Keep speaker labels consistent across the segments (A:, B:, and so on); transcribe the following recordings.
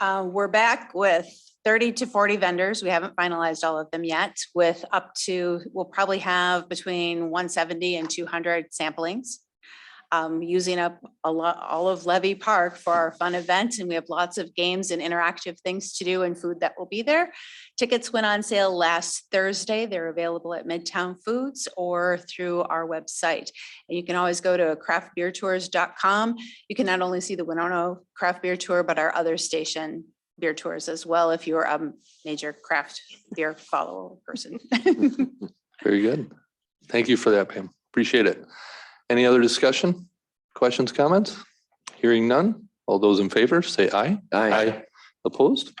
A: Uh, we're back with thirty to forty vendors. We haven't finalized all of them yet with up to, we'll probably have between one seventy and two hundred samplings. Um, using up a lot, all of Levy Park for our fun event and we have lots of games and interactive things to do and food that will be there. Tickets went on sale last Thursday. They're available at Midtown Foods or through our website. And you can always go to craftbeertours.com you can not only see the Winona Craft Beer Tour, but our other station beer tours as well, if you're a major craft beer follower person.
B: Very good. Thank you for that, Pam. Appreciate it. Any other discussion? Questions, comments? Hearing none. All those in favor, say aye. Opposed?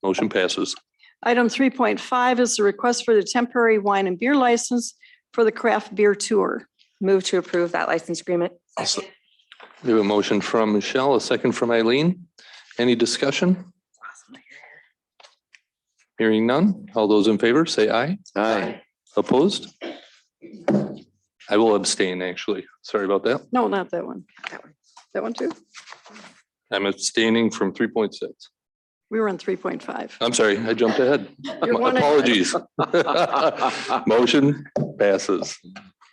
B: Motion passes.
C: Item three point five is the request for the temporary wine and beer license for the craft beer tour.
D: Move to approve that license agreement.
B: We have a motion from Michelle, a second from Eileen. Any discussion? Hearing none. All those in favor, say aye.
E: Aye.
B: Opposed? I will abstain, actually. Sorry about that.
C: No, not that one.
D: That one.
C: That one too?
B: I'm abstaining from three point six.
C: We were on three point five.
B: I'm sorry, I jumped ahead.
C: You're one ahead.
B: Apologies. Motion passes.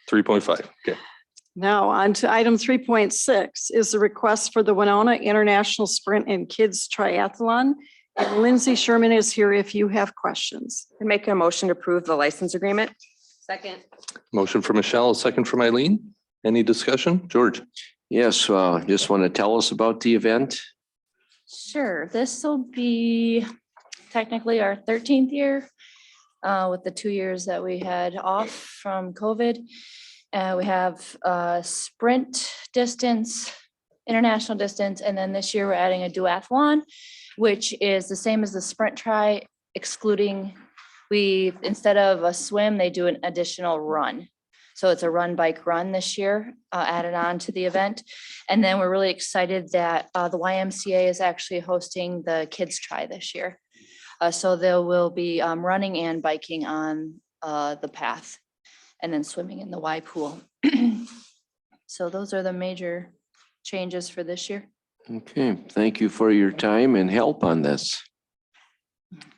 B: Three point five. Okay.
C: Now on to item three point six is the request for the Winona International Sprint and Kids Triathlon. And Lindsay Sherman is here if you have questions.
D: I Make a motion to approve the license agreement. Second.
B: Motion for Michelle, a second from Eileen. Any discussion? George?
E: Yes, uh, just want to tell us about the event.
F: Sure, this will be technically our thirteenth year uh, with the two years that we had off from COVID. Uh, we have uh, sprint distance, international distance, and then this year we're adding a duathlon, which is the same as the sprint try excluding, we, instead of a swim, they do an additional run. So it's a run, bike, run this year, uh, added on to the event. And then we're really excited that uh, the YMCA is actually hosting the Kids Try this year. Uh, So they will be um, running and biking on uh, the path and then swimming in the Y pool. So those are the major changes for this year.
E: Okay, thank you for your time and help on this.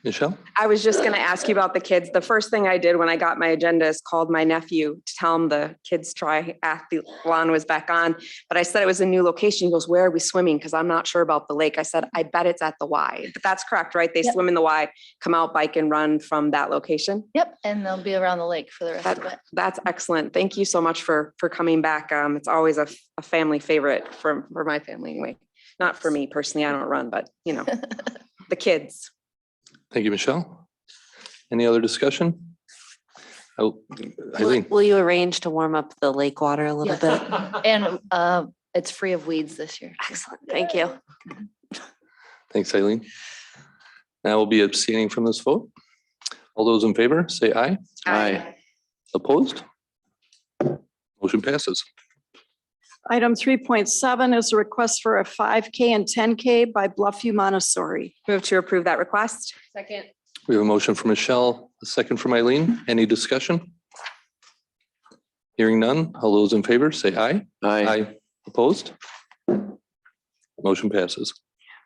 B: Michelle?
D: I was just going to ask you about the kids. The first thing I did when I got my agenda is called my nephew to tell him the kids triathlon was back on. But I said it was a new location. He goes, where are we swimming? Because I'm not sure about the lake. I said, I bet it's at the Y. But that's correct, right? They
F: Yep.
D: swim in the Y, come out, bike and run from that location.
F: Yep, and they'll be around the lake for the rest of it.
D: That's excellent. Thank you so much for, for coming back. Um, it's always a, f- a family favorite for, for my family anyway. Not for me personally, I don't run, but you know, the kids.
B: Thank you, Michelle. Any other discussion? Oh,
G: Will
B: Eileen,
G: will you arrange to warm up the lake water a little bit?
F: And uh, it's free of weeds this year.
G: Excellent, thank you.
B: thanks, Eileen. Now we'll be abstaining from this vote. All those in favor, say aye.
E: Aye.
B: Opposed? Motion passes.
C: Item three point seven is a request for a five K and ten K by Bluffview Montessori.
D: Move to approve that request.
F: Second.
B: We have a motion from Michelle, a second from Eileen. Any discussion? Hearing none. All those in favor, say aye.
E: Aye.
B: Opposed? Motion passes.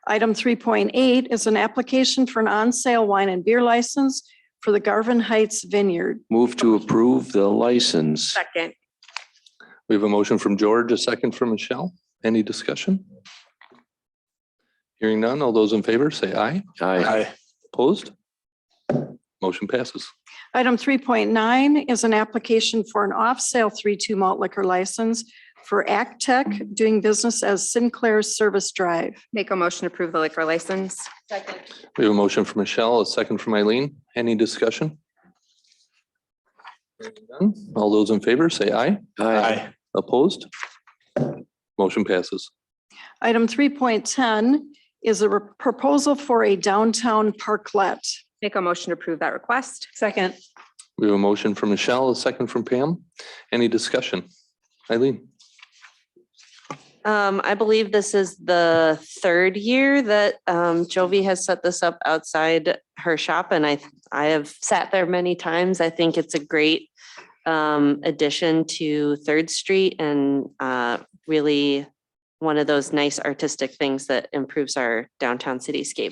C: Item three point eight is an application for an on-sale wine and beer license for the Garvin Heights Vineyard.
E: Move to approve the license.
D: Second.
B: We have a motion from George, a second from Michelle. Any discussion? Hearing none. All those in favor, say aye.
E: Aye.
B: Opposed? Motion passes.
C: Item three point nine is an application for an off-sale three-two malt liquor license for Act Tech doing business as Sinclair Service Drive.
D: Make a motion to approve the liquor license.
F: Second.
B: We have a motion from Michelle, a second from Eileen. Any discussion? Hearing none. All those in favor, say aye.
E: Aye.
B: Opposed? Motion passes.
C: Item three point ten is a re- proposal for a downtown parklet.
D: Make a motion to approve that request.
C: Second.
B: We have a motion from Michelle, a second from Pam. Any discussion? Eileen,
G: Um, I believe this is the third year that um Jovi has set this up outside her shop and I I have sat there many times. I think it's a great um addition to Third Street and uh really
D: one of those nice artistic things that improves our downtown cityscape.